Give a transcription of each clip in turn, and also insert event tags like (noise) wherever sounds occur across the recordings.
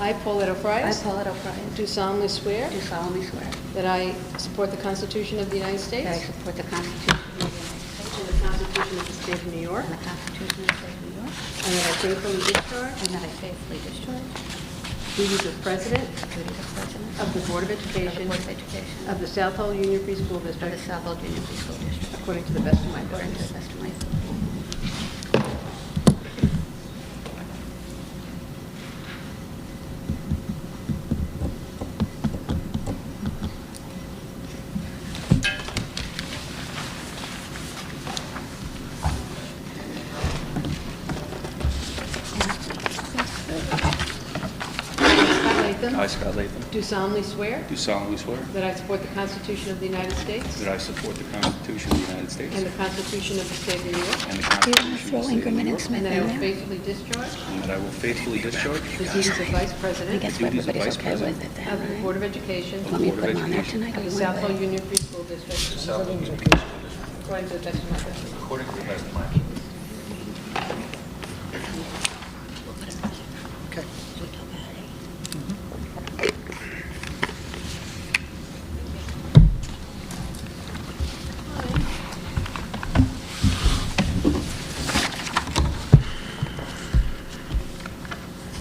I, Paulette I, O'Frias, Paulette O'Brien, do solemnly swear do solemnly swear that I support the Constitution of the United that I States support the Constitution of the United States and the Constitution of the State of New York, and the Constitution of the State of New York, and that I faithfully discharge and that I faithfully discharge the duties of President the duties of President of the Board of of the Education Board of Education of the South Hall Union Free School of the District, South Hall Junior High School District, according to the best of my according ability. to the best of my ability. Scott Latham. I, Scott Latham, Do solemnly swear do solemnly swear that I support the Constitution of the United States that I support the Constitution of the United States and the Constitution of the State of New York, and the Do you Constitution want of to the throw State of Ingram New and York, Smith and in that I will there? faithfully discharge and that I will faithfully discharge the duties of Vice I President guess The duties of everybody's Vice okay with President it then, of the right? Board of Education Want me to Board put of them on there Education. tonight? or of the you South want Hall to- Union Free School District, according to the best of my ability. according to the best of my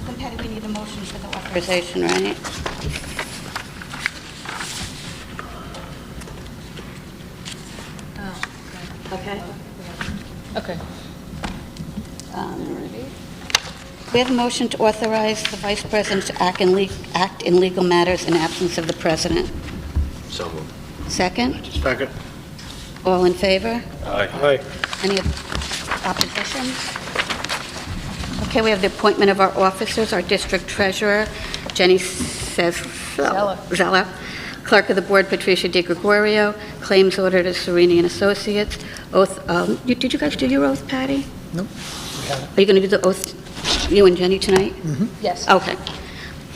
Then Patty, we need a motion for the authorization, right? Okay. Okay. Um, We have a motion to authorize the vice president to act in le- act in legal matters in absence of the president. So moved. Second? Second. All in favor? Aye. Any opposition? Okay, we have the appointment of our officers, our district treasurer, Jenny says Zeller. Zeller, clerk of the board, Patricia De Gregorio, claims auditor, Sereni and Associates, oath, um, you- did you guys do your oath, Patty? No. Are you going to do the oath, you and Jenny, tonight? Yes. Okay.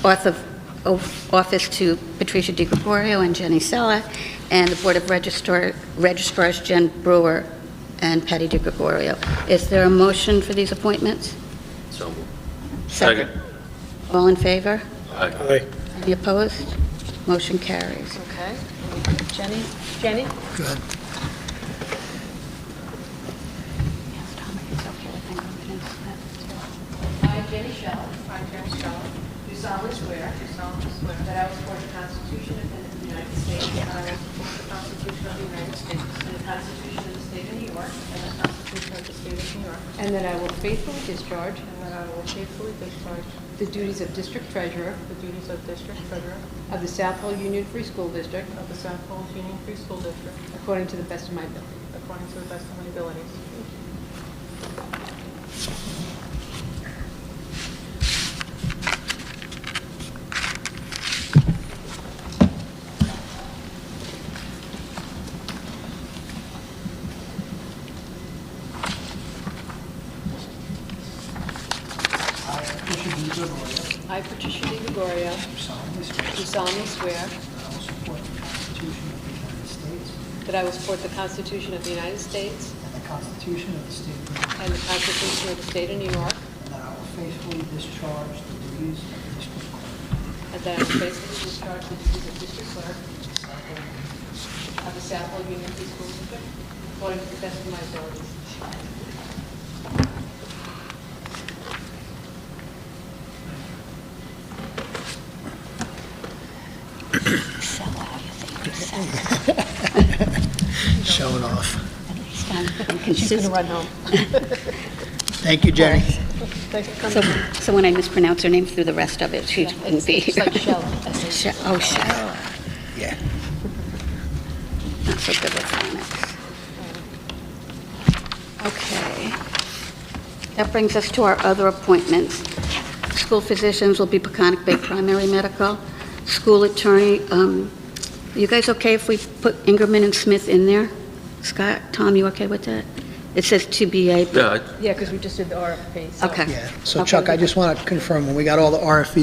Oath of, of office to Patricia De Gregorio and Jenny Sella, and the Board of Registrar, Registrars Jen Brewer and Patty De Gregorio. Is there a motion for these appointments? So moved. All in favor? Aye. Aye. Any opposed? Motion carries. Okay. Jenny? Jenny? I, Jenny Shell. I, Jenny Shell. Do solemnly swear. Do solemnly swear. That I will support the Constitution of the United States. And I will support the Constitution of the United States. And the Constitution of the State of New York. And the Constitution of the State of New York. And that I will faithfully discharge. And that I will faithfully discharge. The duties of District Treasurer. The duties of District Treasurer. Of the South Hall Union Free School District. Of the South Hall Union Free School District. According to the best of my ability. According to the best of my abilities. I, Bishop D. Gregorio, I, Patricia De Gregorio, do solemnly swear do solemnly swear that I will support the Constitution of the United States that I will support the Constitution of the United States and the Constitution of the State of New York, and the Constitution of the State of New York, and that I will faithfully discharge the duties of district clerk and that I will faithfully discharge the duties of district clerk of of the South Oakland the South Hall Union Free School District according to the best of my abilities. (laughs) (laughs) Showing off. She's going to run home. Thank you, Jenny. So when I mispronounce her name through the rest of it, she wouldn't be It's here. like Shell. (laughs) Sh- Oh, Cheryl, Yeah. not so good with phonics. Okay. That brings us to our other appointments. School physicians will be Peconic Bay Primary Medical. School attorney, um, you guys okay if we put Ingerman and Smith in there? Scott, Tom, you okay with that? It says TBA, but- Yeah, I- Yeah, because we just did the RFP, okay. Yeah. So Chuck, I just want to confirm, when we got all the E RFVs